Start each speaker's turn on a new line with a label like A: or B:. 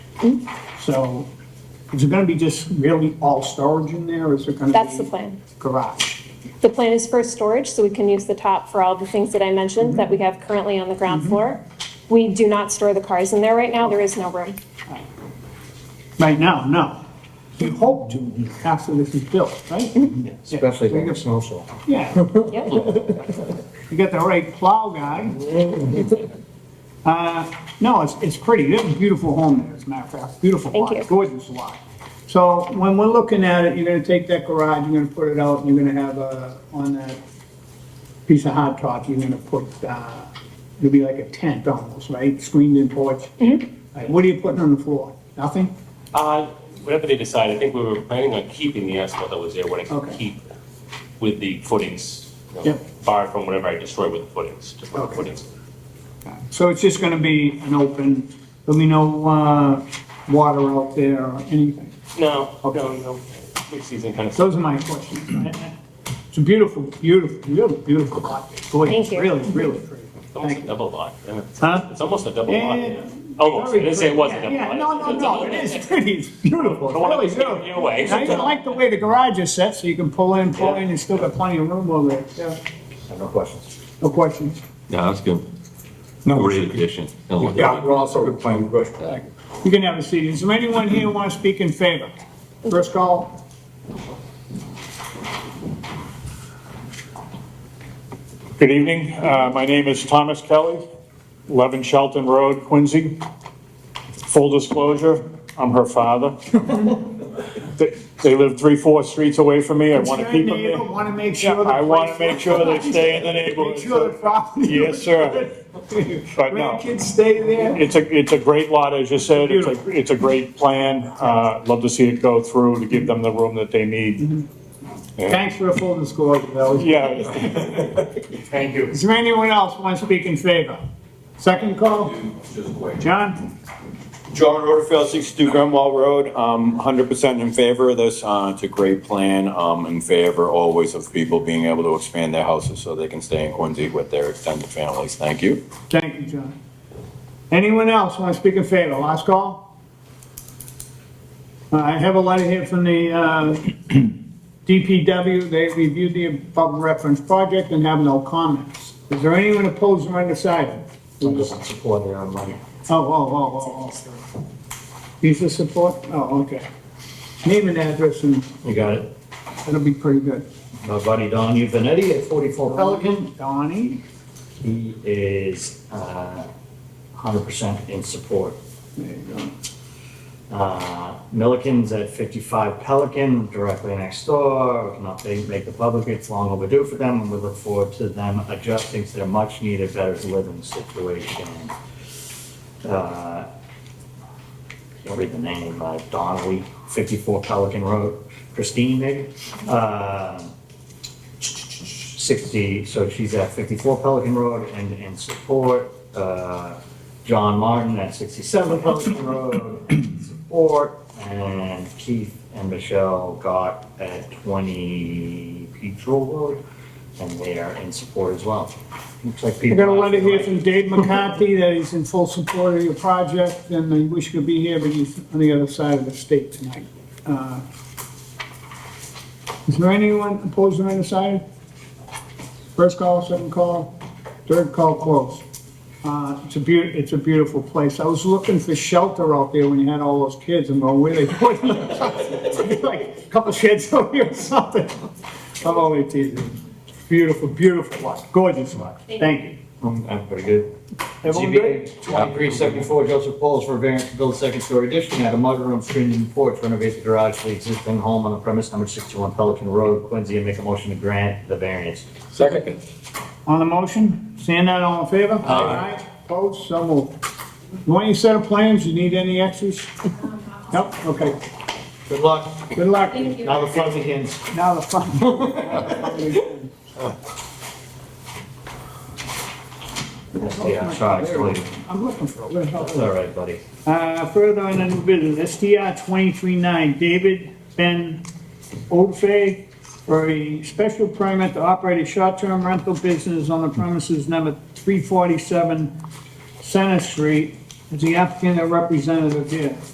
A: So is it gonna be just really all storage in there, or is it gonna be?
B: That's the plan.
A: Garage.
B: The plan is for storage, so we can use the top for all the things that I mentioned that we have currently on the ground floor. We do not store the cars in there right now, there is no room.
A: Right now, no. You hope to after this is built, right? Yeah.
C: Especially during the snowstorm.
A: Yeah,
B: Yep.
A: you got the right plow guy. Uh, no, it's, it's pretty, They have a beautiful home there, as a matter of fact, beautiful
B: Thank
A: lot,
B: you.
A: gorgeous lot. So when we're looking at it, you're gonna take that garage, you're gonna put it out, and you're gonna have, uh, on that piece of hot top, you're gonna put, uh, it'll be like a tent almost, right, screened in porch?
B: Mm-hmm.
A: Like, What are you putting on the floor? Nothing?
D: Uh, whatever they decide, I think we were planning on keeping the asphalt that was there, what I could
A: Okay.
D: keep with the footings, you know,
A: Yep.
D: barred from whatever I destroy with the footings, just with the
A: Okay.
D: footings.
A: So it's just gonna be an open, there'll be no, uh, water out there or anything?
D: No,
A: Okay.
D: no, no, mid-season kind of stuff.
A: Those are my questions. It's a beautiful, beautiful, beautiful, beautiful lot. Boy, it's
B: Thank you.
A: Really, really pretty.
D: It's almost a
A: Thank you.
D: double lot. isn't it?
A: Huh?
D: It's almost a double lot,
A: Yeah, yeah,
D: yeah. Almost, I didn't say it was a
A: Yeah,
D: double
A: Yeah,
D: lot.
A: no, no,
D: It's a
A: no,
D: double
A: it
D: lot.
A: is pretty, it's beautiful,
D: Don't wanna
A: really
D: give you
A: beautiful.
D: away.
A: I even like the way the garage is set, so you can pull in, pull
D: Yeah.
A: in, you still got plenty of room over there. Yeah.
C: No questions.
A: No questions?
E: Yeah, that's good. Great addition. I like it.
C: we're also good plan, good.
A: You can have a seat. Is there anyone here who wants to speak in favor? First call.
F: Good evening. Uh, My name is Thomas Kelly, 11 Shelton Road, Quincy. Full disclosure, I'm her father. They they live three, four streets away from me. I want to keep them there.
A: Want to make
F: Yeah,
A: sure. the
F: I want to
A: place-
F: make sure they stay in the
A: Make sure the
F: neighborhood.
A: property.
F: Yes, sir. But no.
A: Grandkids stay there.
F: It's a, it's a great lot, as you said. It's a, it's a great plan. Uh, Love to see it go through to give them the room that they
A: Mm-hmm.
F: need.
A: Thanks for the full disclosure, that was-
F: Yeah. Thank you.
A: Is there anyone else want to speak in favor? Second call? John?
G: John Rutherford, 62 Grimwell Road. Um, 100% in favor of this. Uh, It's a great plan. Um, In favor always of people being able to expand their houses so they can stay in Quincy with their extended families. Thank you.
A: Thank you, John. Anyone else want to speak in favor? Last call? Uh, I have a letter here from the uh, DPW. They reviewed the above referenced project and have no comments. Is there anyone opposed or undecided?
C: I'm just supporting on money.
A: Oh, oh, oh, oh, oh. Use the support? Oh, okay. Name and address and
H: You got it.
A: that'll be pretty good.
H: My buddy Don Uvenetti at 44 Pelican.
A: Donnie?
H: He is uh, 100% in support.
A: There you go.
H: Uh, Milliken's at 55 Pelican, directly next door. We can update, make the public, it's long overdue for them, and we look forward to them adjusting to their much-needed better living situation. Uh, Can't read the name, uh, Donnelly, 54 Pelican Road, Christine maybe? Uh, 60, so she's at 54 Pelican Road and in support. uh, John Martin at 67 Pelican Road in support. And Keith and Michelle Gott at 20 Petrel Road, and they are in support as well. Looks like
A: I
H: people.
A: got a letter here from Dave McCarthy that he's in full support of your project, and I wish he could be here, but he's on the other side of the state tonight. Uh, Is there anyone opposed or undecided? First call, second call, third call closed. Uh, It's a beau, it's a beautiful place. I was looking for shelter out there when you had all those kids, I'm going, where they put them? Like, a couple sheds over here or something. I'm only teasing. Beautiful, beautiful lot, gorgeous lot. Thank you.
C: I'm pretty good.
A: Everyone good?
C: ZBA 2374 Joseph Pauls for a variance to build a second-story addition, add a mudroom, screened-in porch, renovate the garage to the existing home on the premise number 61 Pelican Road, Quincy, and make a motion to grant the variance.
G: Second.
A: On the motion, seeing none, all in favor? Aye. Opposed, so moved. You want your set of plans, you need any extras? Nope, okay,
C: Good luck.
A: good luck.
C: Now the fun begins.
A: Now the fun.
C: Yeah, I'm sorry, it's late.
A: I'm looking for, it. where the hell is
C: It's
A: it?
C: all right, buddy.
A: Uh, further on the new business, STR 239, David Ben Oldfay for a special permit to operate a short-term rental business on the premises number 347 Center Street. Is the applicant a representative here?